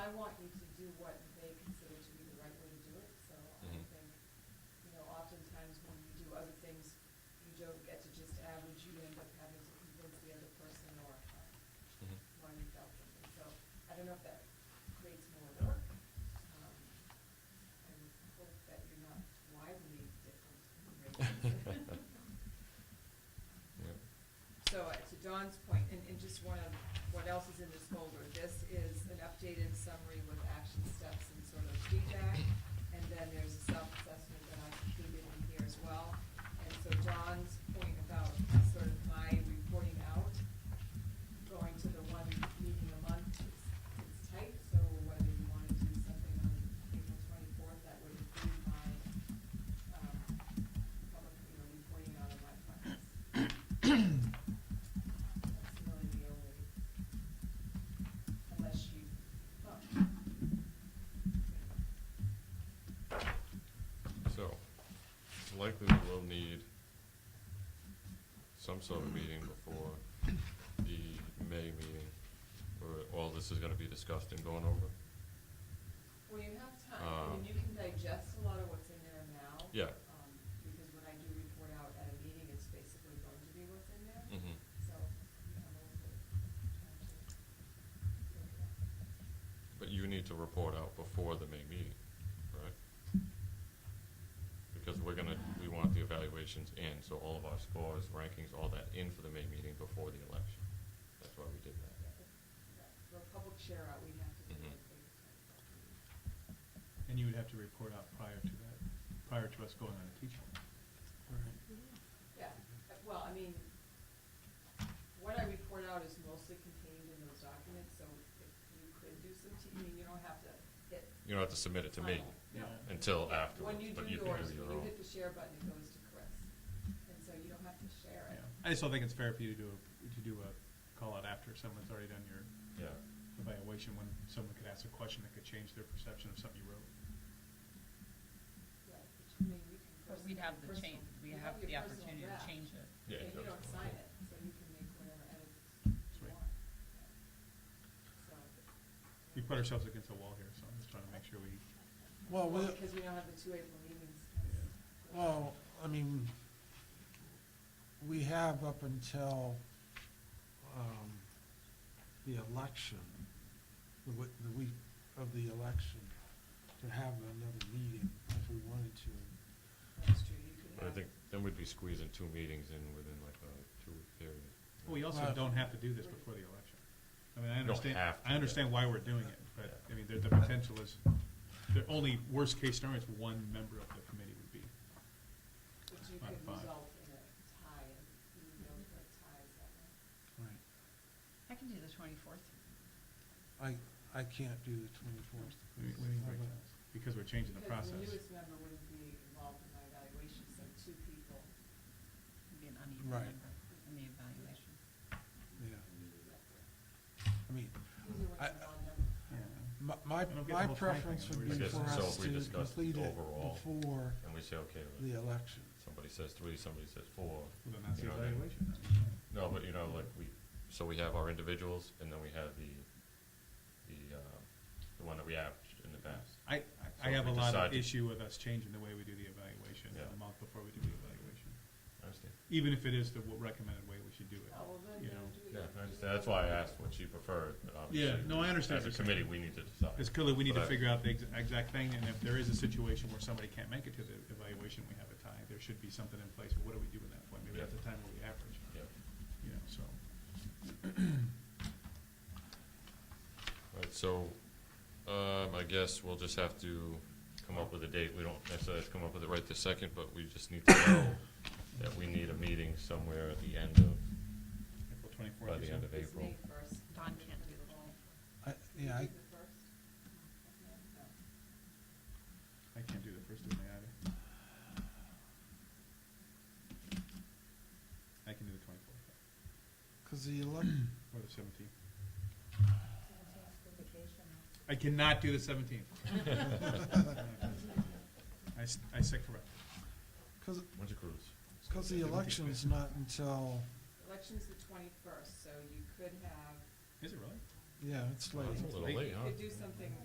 don't get to just average, you end up having to convince the other person or uh, Mhm. one without them. So I don't know if that creates more work. Um, I would hope that you're not widely different in Mm-hmm. rates. Yep. So uh, to Dawn's point, and, and just one of, what else is in this folder, this is an updated summary with action steps and sort of feedback. And then there's a self-assessment that I included in here as well. And so Dawn's point about sort of my reporting out, going to the one meeting a month, it's, it's tight. So whether you want to do something on April twenty-fourth, that would include my, um, public, you know, reporting out of my plans. That's really the only, unless you, well, So, it's likely we will need some sort of meeting before the May meeting, where all this is gonna be discussed and going over. when you have time, I mean, Um, you can digest a lot of what's in there now. Yeah. um, Because when I do report out at a meeting, it's basically going to be what's in there. Mhm. So, um, you have a little bit of time to look at that. But you need to report out before the May meeting, right? Because we're gonna, we want the evaluations in, so all of our scores, rankings, all that in for the May meeting before the election. That's why we did that. Yeah, For a um, public share out, we have to do it. Mhm. based And you would have to report out prior to that, prior to us going on a teaching. on- Yeah, uh, well, I mean, what I report out is mostly contained in those documents, so if you could do some teaching, you don't have to hit. You don't have to submit it to me final. Yeah. until Yeah, afterwards, but you can do When you do yours, your when you own. hit the share button, it goes to Chris, and so you don't have to share Yeah. it. I just don't think it's fair for you to do, a- to do a call out after someone's already done your Yeah. evaluation, when someone could ask a question that could change their perception of something you wrote. Yeah, which, I mean, we can But pers- we'd have the personal- change, we you have your the personal opportunity to draft, change it. Yeah, And you exactly. don't sign it, so you can make whatever edits you Sweet. want. So, We put ourselves against a wall here, so I'm just trying to make sure we, Well, Well, with, because we don't have the two April meetings. well, I mean, we have up until, um, the election, the week, the week of the election, to have another meeting if we wanted to. That's true, you could But I have. think then we'd be squeezing two meetings in within like a two-week period. well, we also Well- don't have to do this before the election. I mean, I Don't understand, have to, I understand why we're doing it, but, I mean, the, the potential is, the only worst case scenario is one member of the committee would be. But you Not could five. result in a tie, and you would be able to like ties that way. Right. I can do the twenty-fourth. I, I can't do the twenty-fourth. We- we need breakdowns, Because we're changing the Because process. the newest member wouldn't be involved in my evaluation, so two people. It'd be an uneven Right. number in the evaluation. Yeah, would be up there. I mean, Either one's I- a non-member. Yeah. my, my, don't get the my whole thing, I mean, preference would we're be just- for I guess so us if we to discuss the complete it overall- before And we say, okay, the election. somebody says three, somebody says four. Well, then that's you the know what I mean? evaluation. No, but you know, like we, so we have our individuals and then we have the, the, um, the one that we averaged in the past. I, I- So I if have a we lot decide of to- issue with us changing the way we do the evaluation, Yeah. a month before we do the evaluation. I understand. Even if it is the w- recommended way we should do it. Oh, well, then You they'll know. do it. Yeah, I understand. That's why I asked what she preferred, but obviously. Yeah, no, I understand As what a you're saying. committee, we need to decide. It's clearly, we need But to I- figure out the ex- exact thing, and if there is a situation where somebody can't make it to the evaluation, we have a tie. There should be something in place, but what do we do at that point? Maybe Yeah. that's the time where we average, Yeah, you know, so. right, so, um, I guess we'll just have to come up with a date. We don't necessarily have to come up with it right this second, but we just need to know that we need a meeting somewhere at the end of April twenty-fourth. By the end of It's April. May first. Don can't do the I, yeah, I, Is it the first? No. I can't do the first of May either. I can do the twenty-fourth, cause the election, or the seventeenth. vacation. I cannot do the seventeenth. I, s- I said correct. cause When's your cruise? Because the election's not until, Election's the twenty-first, so you could have, Is it really? yeah, it's late. It's a little late, huh? could do something